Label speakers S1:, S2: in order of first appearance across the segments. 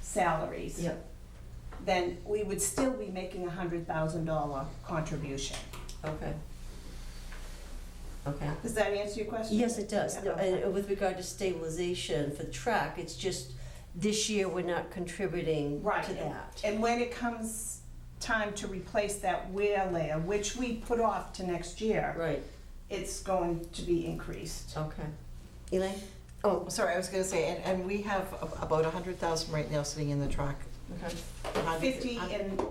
S1: salaries.
S2: Yep.
S1: Then we would still be making a hundred thousand dollar contribution.
S2: Okay. Okay.
S1: Does that answer your question?
S2: Yes, it does. No,
S1: Yeah.
S2: And with regard to stabilization for the track, it's just this year we're not contributing
S1: Right.
S2: to that.
S1: And when it comes time to replace that wear layer, which we put off to next year,
S2: Right,
S1: it's going to be increased.
S2: okay. Elaine?
S3: Oh, sorry, I was gonna say, and, and we have ab- about a hundred thousand right now sitting in the truck.
S2: Okay.
S3: A hundred-
S1: Fifty
S3: I
S1: and,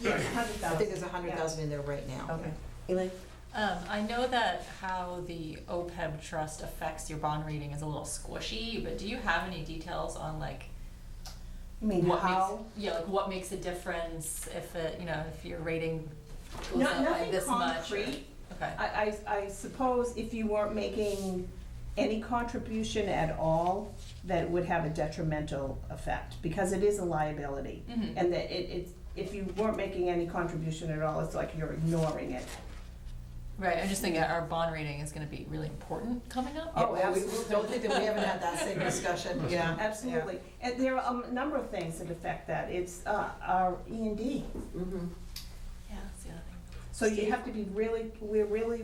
S1: yes, hundred
S3: think
S1: thousand.
S3: there's a hundred thousand in there right now.
S2: Okay. Elaine?
S4: Um, I know that how the OPEB trust affects your bond rating is a little squishy, but do you have any details on like
S1: I mean,
S4: what
S1: how?
S4: makes yeah, like what makes a difference if it you know if your rating goes
S1: Not,
S4: up by
S1: nothing
S4: this much? or-
S1: concrete.
S4: Okay.
S1: I, I, I suppose if you weren't making any contribution at all, that it would have a detrimental effect, because it is a liability.
S4: Mhm.
S1: And that it, it's, if you weren't making any contribution at all, it's like you're ignoring it.
S4: Right. I'm just thinking our bond rating is going to be really important coming up.
S1: Oh,
S3: Yeah, well, we-
S1: absolutely.
S3: Don't think that we haven't had that same discussion, yeah.
S1: Absolutely. And there are a number of things that affect that. It's, uh, our E and D.
S2: Mm-hmm.
S4: Yeah, that's the other thing.
S1: So you have to be really, we're really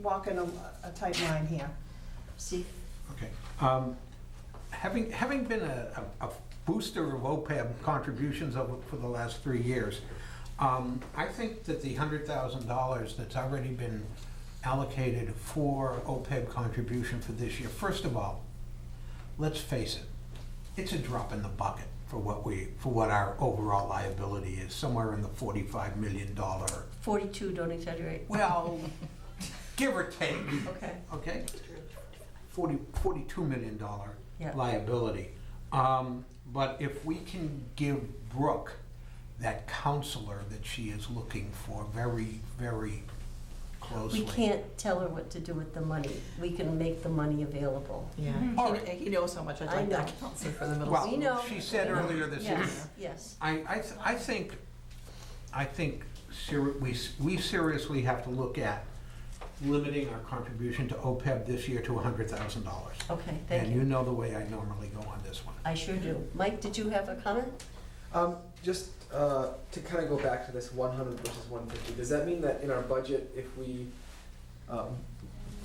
S1: walking a, a tight line here.
S2: Steve?
S5: Okay. Um, Having, having been a a- a booster of OPEB contributions over, for the last three years, um, I think that the hundred thousand dollars that's already been allocated for OPEB contribution for this year, first of all, let's face it, it's a drop in the bucket for what we, for what our overall liability is, somewhere in the forty-five million dollar,
S2: Forty-two, don't exaggerate.
S5: well, give or take
S2: Okay.
S5: okay? Forty, forty-two million dollar
S2: Yeah.
S5: liability. Um, but if we can give Brooke that counselor that she is looking for very, very closely.
S2: We can't tell her what to do with the money. We can make the money available.
S3: Yeah,
S5: All
S3: He-
S5: right.
S3: he knows how much I'd
S2: Mm-hmm. I
S3: like that
S2: know.
S3: counselor for the middle
S2: We
S3: school.
S2: know.
S5: Well, she said
S2: we know.
S5: earlier this evening.
S2: Yes, yes.
S5: I, I, th- I think, I think seri- we, s- we seriously have to look at limiting our contribution to OPEB this year to hundred thousand dollars.
S2: Okay, thank
S5: And you
S2: you.
S5: know the way I normally go on this one.
S2: I sure do. Mike, did you have a comment?
S6: Um, just uh, to kind of go back to this 100 versus 150, does that mean that in our budget, if we um,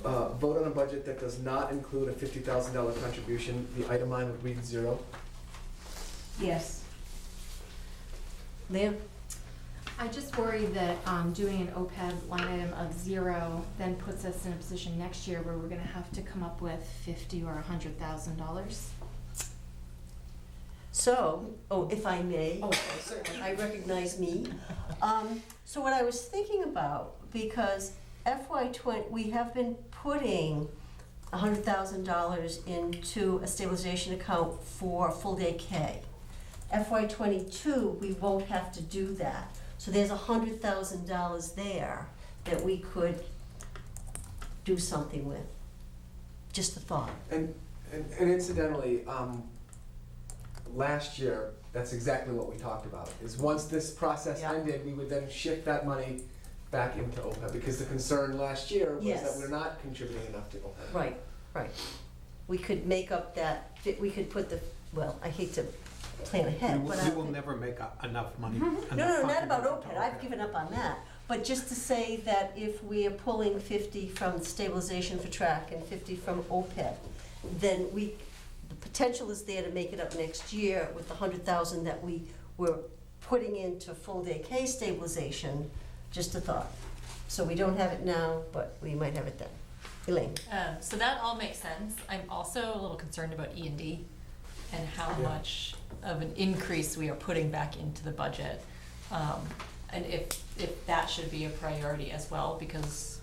S6: uh, vote on a budget that does not include a $50,000 contribution, the item line would read zero?
S1: Yes.
S2: Liam?
S7: I just worry that um, doing an OPEB line item of zero then puts us in a position next year where we're gonna have to come up with fifty or a hundred thousand dollars.
S2: So, oh, if I may.
S3: Oh, certainly.
S2: I recognize me. Um, so what I was thinking about, because FY twenty, we have been putting hundred thousand dollars into a stabilization account for full day K. FY twenty-two, we won't have to do that. So there's hundred thousand dollars there that we could do something with. Just a thought.
S6: And, and, and incidentally, um, last year, that's exactly what we talked about, is once this process
S3: Yeah.
S6: ended, we would then shift that money back into OPEB, because the concern last year was that
S2: Yes.
S6: we're not contributing enough to E OPEB.
S2: Right, right. We could make up that, we could put the, well, I hate to plan
S5: We
S2: ahead,
S5: will,
S2: but I.
S5: we will never make up enough money.
S2: No, no, not about OPEB, I've given up on that. But just to say that if we are pulling fifty from stabilization for track and fifty from OPEB, then we, the potential is there to make it up next year with the hundred thousand that we were putting into full day K stabilization, just a thought. So we don't have it now, but we might have it then. Elaine?
S4: Um, so that all makes sense. I'm also a little concerned about E and D and how
S6: Yeah.
S4: much of an increase we are putting back into the budget. Um, and if, if that should be a priority as well, because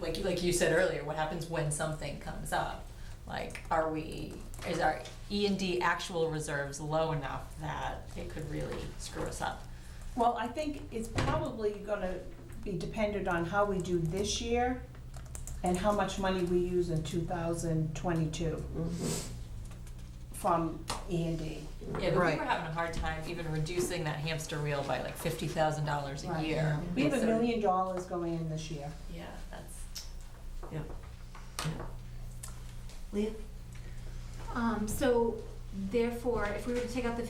S4: like, like you said earlier, what happens when something comes up? Like, are we, is our E and D actual reserves low enough that it could really screw us up?
S1: Well, I think it's probably gonna be dependent on how we do this year and how much money we use in two thousand twenty-two from E and D.
S4: Yeah, but we
S3: Right.
S4: were having a hard time even reducing that hamster wheel by like fifty thousand dollars a
S7: Right.
S4: year.
S1: We have a
S4: So-
S1: million dollars going in this year.
S4: Yeah, that's.
S2: Leah?
S7: Um, so therefore, if we were to take out the